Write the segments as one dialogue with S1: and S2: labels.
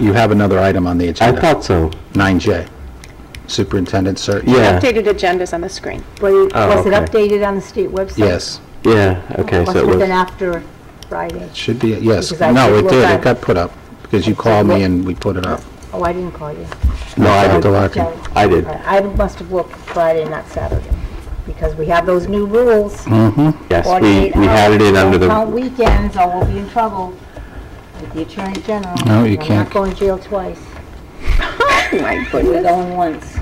S1: You have another item on the
S2: I
S1: agenda.
S2: thought so.
S1: 9J, superintendent search.
S2: Yeah,
S3: Updated agendas on the screen.
S4: Was
S2: Oh,
S4: was it
S2: okay.
S4: updated on the state website?
S1: Yes,
S2: yeah, okay,
S4: Must
S2: so it
S4: have
S2: was,
S4: been after Friday.
S1: should be, yes.
S4: Because I
S1: No,
S4: did
S1: it
S4: look
S1: did, it
S4: at-
S1: got put up, because you
S4: I did
S1: called me
S4: look-
S1: and we put it up.
S4: Oh, I didn't call you.
S2: no, I
S1: Dr.
S2: did,
S1: Larkin.
S2: I did.
S4: I must have looked Friday, not Saturday, because we have those new rules.
S2: Yes, we, we had it in under
S4: Don't count
S2: the,
S4: weekends, or we'll be in trouble with the Attorney General.
S1: No, you
S4: We're
S1: can't.
S4: not going to jail twice,
S3: My
S4: we're
S3: goodness.
S4: going once.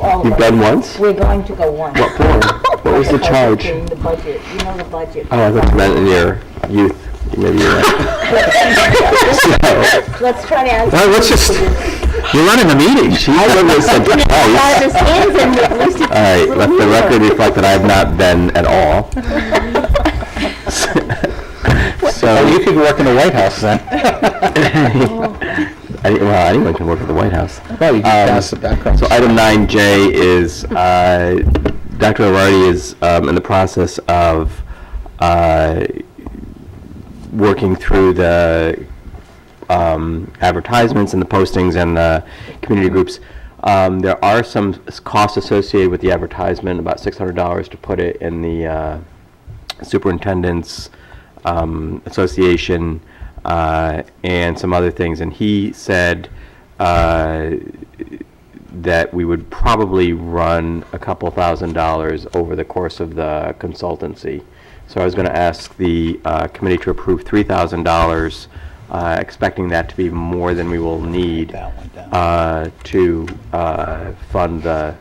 S4: All of
S2: you've
S4: us.
S2: done once?
S4: We're going to go once.
S2: What for? What was the
S4: Because
S2: charge?
S4: we're doing The budget, you know the budget.
S2: Oh, I thought you meant in your youth, maybe you're right. So,
S4: Let's try to ask.
S2: well, let's just,
S1: You're running the meeting.
S2: she literally said, oh, yes.
S4: All
S2: All right, let the record reflect that I have not been at all.
S1: Oh,
S2: So,
S1: you could work in the White House then.
S2: I- well, anyone can work at the White House.
S1: Well, you could
S2: Um,
S1: pass the background.
S2: So item 9J is, uh, Dr. O'Reilly is um, in the process of uh, working through the um, advertisements and the postings and the community groups. Um, There are some s- costs associated with the advertisement, about $600 to put it in the uh, superintendent's um, association uh, and some other things. And he said uh, that we would probably run a couple thousand dollars over the course of the consultancy. So I was going to ask the uh, committee to approve $3,000, uh, expecting that to be more than we will need uh, to uh, fund the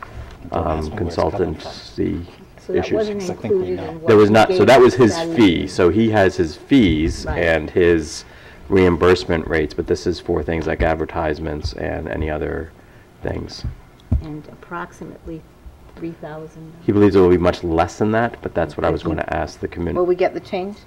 S2: um, consultancy
S4: So that
S2: issues.
S4: wasn't included in what
S2: There was not,
S4: we
S2: so
S4: gave
S2: that was his
S4: Sally.
S2: fee, so he has his fees
S4: Right.
S2: and his reimbursement rates, but this is for things like advertisements and any other things.
S4: And approximately 3,000.
S2: He believes it will be much less than that, but that's what I was going to ask the
S3: Will
S2: community.
S3: we get the change?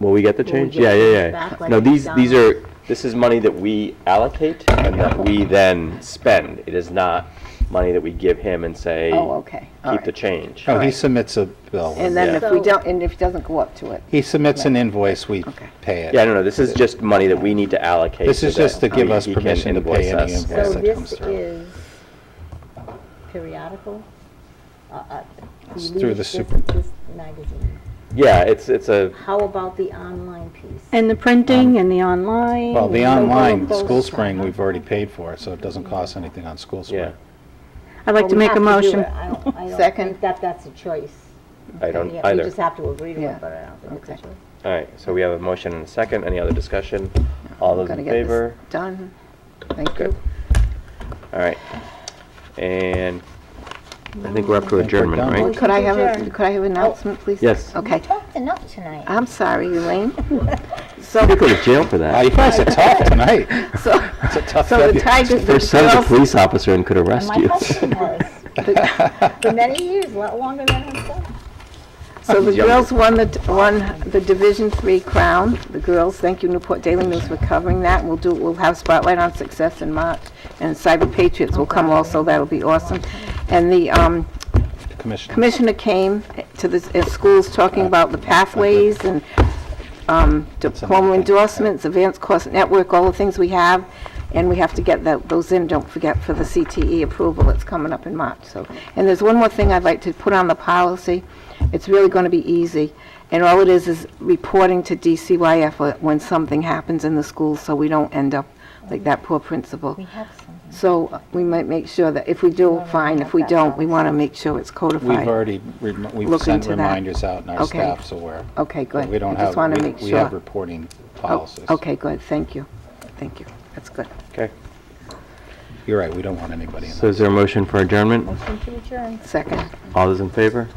S2: Will we get the
S4: Will we
S2: change?
S4: get
S2: Yeah,
S4: the
S2: yeah,
S4: change back
S2: yeah.
S4: like
S2: No, these, these
S4: McDonald's?
S2: are, this is money that we allocate and that we then spend. It is not money that we give him and say,
S3: Oh, okay. All
S2: keep the
S3: right.
S2: change.
S1: Oh, he submits a bill.
S3: And then
S2: Yeah.
S3: if we don't, and if it doesn't go up to it,
S1: He submits an invoice, we
S3: Okay.
S1: pay it.
S2: Yeah, no, no, this is just money that we need to allocate.
S1: This
S2: so
S1: is just
S2: that
S1: to give
S2: he-
S1: us
S2: he can
S1: permission to pay
S2: invoice
S1: any
S2: us.
S1: invoice.
S4: So
S1: Yes, that comes
S4: this
S1: through.
S4: is periodical? Uh, uh,
S1: It's
S4: you
S1: through
S4: leave
S1: the
S4: this-
S1: super-
S4: this magazine.
S2: Yeah, it's, it's a,
S4: How about the online piece?
S5: And the printing and the online.
S1: Well, the
S5: and all of
S1: online,
S5: those.
S1: School Spring, we've already paid for, so it doesn't cost anything on School
S2: yeah,
S1: Spring.
S5: I'd like
S4: Well,
S5: to
S4: we
S5: make a
S4: have do
S5: motion.
S4: it. I don't- I don't
S3: Second.
S4: think that that's a choice.
S2: I don't
S4: Yeah, We
S2: either.
S4: just have to agree to
S3: Yeah.
S4: it, but I don't think it's a
S3: Okay.
S4: choice.
S2: All right, so we have a motion and a second. Any other discussion? All those
S3: gotta
S2: in
S3: get this
S2: favor?
S3: done. Thank
S2: Good.
S3: you.
S2: All right. And I think we're up to adjournment,
S1: done.
S2: right?
S3: Could I have, a
S4: Adjourn.
S3: could I have an
S5: Oh.
S3: announcement, please?
S2: Yes.
S3: Okay.
S4: Talked enough tonight.
S3: I'm sorry, Elaine. So,
S2: Could go to jail for
S1: Wow,
S2: that.
S1: you guys are tough tonight.
S3: so,
S1: It's a tough
S3: so the
S1: February.
S3: Tigers,
S2: Your son's a
S3: the girls,
S2: police officer and could arrest
S4: My
S2: you.
S4: husband was, for many years, a lot longer than himself.
S3: so the girls won the, won the Division Three crown. The girls, thank you Newport Daily News for covering that. We'll do, we'll have Spotlight on Success in March, and Cyber Patriots will come also. That'll be awesome. And the, um,
S1: Commissioner,
S3: Commissioner came to the uh, schools talking about the pathways and um, diploma endorsements, advanced course network, all the things we have, and we have to get tho- those in, don't forget, for the CTE approval that's coming up in March, so. And there's one more thing I'd like to put on the policy. It's really going to be easy, and all it is is reporting to DCYF when something happens in the school, so we don't end up like that poor principal. So uh, we might make sure that if we do, fine. If we don't, we want to make sure it's
S1: we've
S3: codified.
S1: already, rem- we've
S3: Look
S1: sent
S3: into that.
S1: reminders out and our
S3: Okay.
S1: staff, so we're.
S3: Okay, good.
S1: We don't
S3: I just
S1: have,
S3: want to
S1: we
S3: make
S1: we have
S3: sure.
S1: reporting
S3: Oh,
S1: policies.
S3: Okay, good. Thank you. Thank you. That's good.
S2: Okay.
S1: You're right, we don't want anybody in that.
S2: So is there a motion for adjournment?
S4: Motion to adjourn.
S3: Second.
S2: All those in favor?